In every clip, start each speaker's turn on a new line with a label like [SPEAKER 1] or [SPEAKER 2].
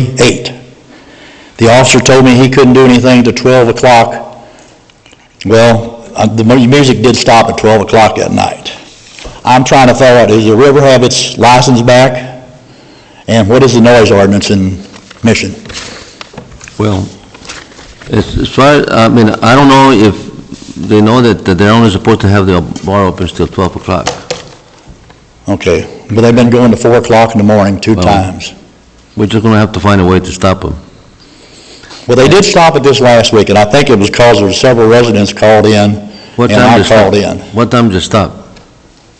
[SPEAKER 1] 38. The officer told me he couldn't do anything till 12 o'clock. Well, uh, the mu- music did stop at 12 o'clock that night. I'm trying to figure out, does the river have its license back? And what is the noise ordinance in Mission?
[SPEAKER 2] Well, as as far, as- I mean, I don't know if they know that that they're only supposed to have the bar open till 12 o'clock.
[SPEAKER 1] Okay, but they've been going to 4 o'clock in the morning two
[SPEAKER 2] Well-
[SPEAKER 1] times.
[SPEAKER 2] We're just going to have to find a way to stop them.
[SPEAKER 1] Well, they did stop it this last week, and I think it was because there were several residents called in,
[SPEAKER 2] What
[SPEAKER 1] and
[SPEAKER 2] time
[SPEAKER 1] I
[SPEAKER 2] does stop?
[SPEAKER 1] called in.
[SPEAKER 2] What time does it stop?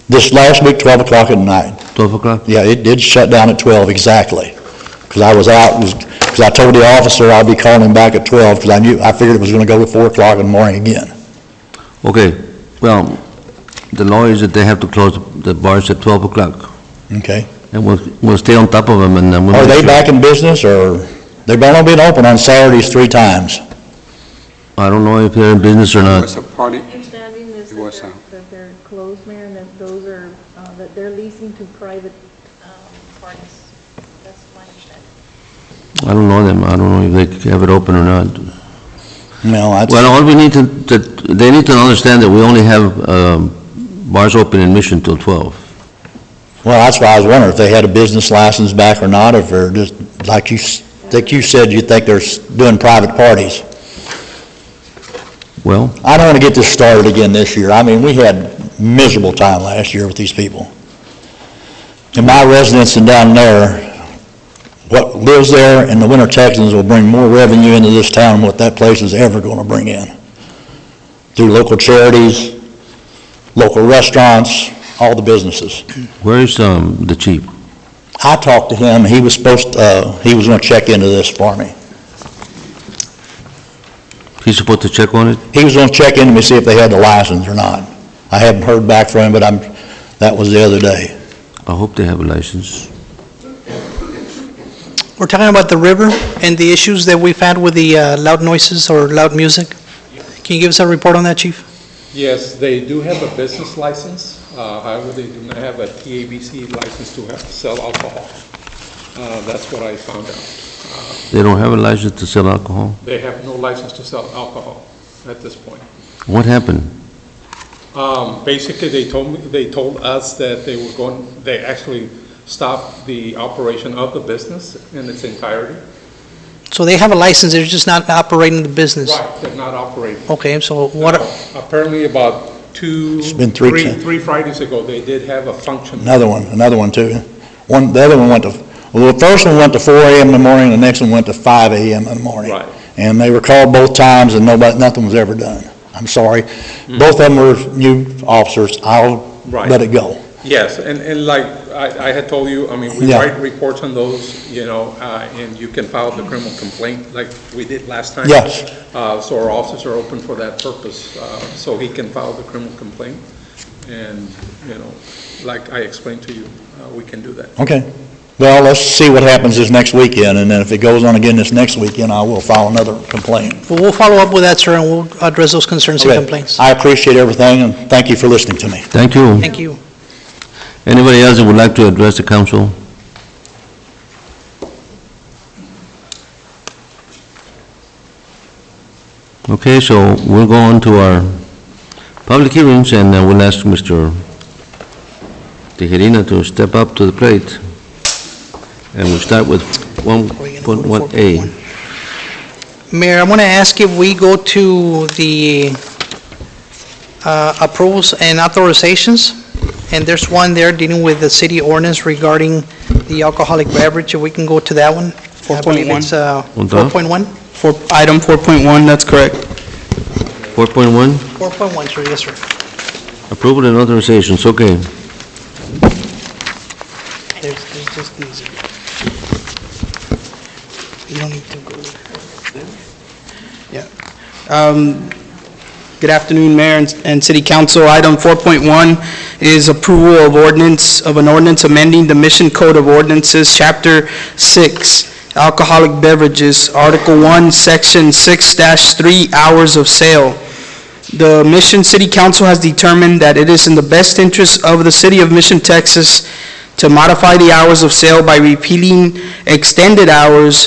[SPEAKER 1] This last week, 12 o'clock at night.
[SPEAKER 2] 12 o'clock?
[SPEAKER 1] Yeah, it did shut down at 12, exactly. Because I was out, because I told the officer I'd be calling him back at 12, because I knew, I figured it was going to go to 4 o'clock in the morning again.
[SPEAKER 2] Okay, well, the law is that they have to close the bars at 12 o'clock.
[SPEAKER 1] Okay?
[SPEAKER 2] And we'll, we'll stay on top of them and then we'll...
[SPEAKER 1] Are
[SPEAKER 2] make
[SPEAKER 1] they
[SPEAKER 2] sure.
[SPEAKER 1] back in business, or, they've only been open on Saturdays three times.
[SPEAKER 2] I don't know if they're in business or
[SPEAKER 3] It
[SPEAKER 2] not.
[SPEAKER 3] was a party,
[SPEAKER 4] Understanding is
[SPEAKER 3] It was,
[SPEAKER 4] that they're,
[SPEAKER 3] uh,
[SPEAKER 4] that they're closed, Mayor, and that those are, uh, that they're leasing to private um, parties. That's my understanding.
[SPEAKER 2] I don't know them. I don't know if they have it open or not.
[SPEAKER 1] No, that's,
[SPEAKER 2] Well, all we need to, that, they need to understand that we only have, um, bars open in Mission till 12.
[SPEAKER 1] well, that's why I was wondering if they had a business license back or not, if they're just, like you, s- like you said, you think they're s- doing private parties.
[SPEAKER 2] Well,
[SPEAKER 1] I don't want to get this started again this year. I mean, we had miserable time last year with these people. And my residents and down there, what lives there and the winter Texans will bring more revenue into this town than what that place is ever going to bring in. Through local charities, local restaurants, all the businesses.
[SPEAKER 2] where is, um, the chief?
[SPEAKER 1] I talked to him, he was supposed, uh, he was going to check into this for me.
[SPEAKER 2] He's supposed to check on it?
[SPEAKER 1] He was going to check into me, see if they had the license or not. I haven't heard back from him, but I'm, that was the other day.
[SPEAKER 2] I hope they have a license.
[SPEAKER 5] We're talking about the river and the issues that we've had with the uh, loud noises or loud music. Can you give us a report on that, chief?
[SPEAKER 6] Yes, they do have a business license, uh, however, they do not have a TABC license to have- sell alcohol. Uh, That's what I found out.
[SPEAKER 2] They don't have a license to sell alcohol?
[SPEAKER 6] They have no license to sell alcohol at this point.
[SPEAKER 2] What happened?
[SPEAKER 6] Um, Basically, they told, me they told us that they were going, they actually stopped the operation of the business in its entirety.
[SPEAKER 5] So they have a license, they're just not operating the business?
[SPEAKER 6] Right, they're not operating.
[SPEAKER 5] Okay, so what,
[SPEAKER 6] Apparently, about two,
[SPEAKER 1] been three
[SPEAKER 6] three
[SPEAKER 1] times.
[SPEAKER 6] three Fridays ago, they did have a function.
[SPEAKER 1] Another one, another one too. One, the other one went to, well, the first one went to four AM in the morning, the next one went to five AM in the morning.
[SPEAKER 6] Right.
[SPEAKER 1] And they were called both times and nobody, nothing was ever done. I'm sorry. Both of them were new officers. I'll
[SPEAKER 6] Mm-hmm. Right.
[SPEAKER 1] let it go.
[SPEAKER 6] Yes, and, and like I, I had told you, I mean, we
[SPEAKER 1] Yeah.
[SPEAKER 6] write reports on those, you know, uh, and you can file the criminal complaint like we did last time.
[SPEAKER 1] Yes.
[SPEAKER 6] Uh, so our offices are open for that purpose, uh, so he can file the criminal complaint. And, you know, like I explained to you, uh, we can do that.
[SPEAKER 1] Okay. Well, let's see what happens this next weekend, and then if it goes on again this next weekend, I will file another complaint.
[SPEAKER 5] well, we'll follow up with that, sir, and we'll address those concerns and
[SPEAKER 1] Okay.
[SPEAKER 5] complaints.
[SPEAKER 1] I appreciate everything and thank you for listening to me.
[SPEAKER 2] Thank you.
[SPEAKER 5] Thank you.
[SPEAKER 2] Anybody else that would like to address the council? Okay, so we'll go on to our public hearings, and uh, we'll ask Mr. Tejerina to step up to the plate. And we'll start with 1.1A.
[SPEAKER 5] Mayor, I want to ask if we go to the uh, approvals and authorizations, and there's one there dealing with the city ordinance regarding the alcoholic beverage, if we can go to that one? I believe
[SPEAKER 7] 4.1.
[SPEAKER 5] it's, uh,
[SPEAKER 2] Hold on.
[SPEAKER 5] 4.1?
[SPEAKER 7] Four- Item 4.1, that's correct.
[SPEAKER 2] 4.1,
[SPEAKER 5] 4.1, sir, yes, sir.
[SPEAKER 2] approval and authorizations, okay.
[SPEAKER 5] There's, there's just these. You don't need to go.
[SPEAKER 7] Um, Good afternoon, Mayor and- and City Council. Item 4.1 is approval of ordinance, of an ordinance amending the Mission Code of Ordinances, Chapter 6, Alcoholic Beverages, Article 1, Section 6-3, Hours of Sale. The Mission City Council has determined that it is in the best interest of the City of Mission, Texas, to modify the hours of sale by repealing extended hours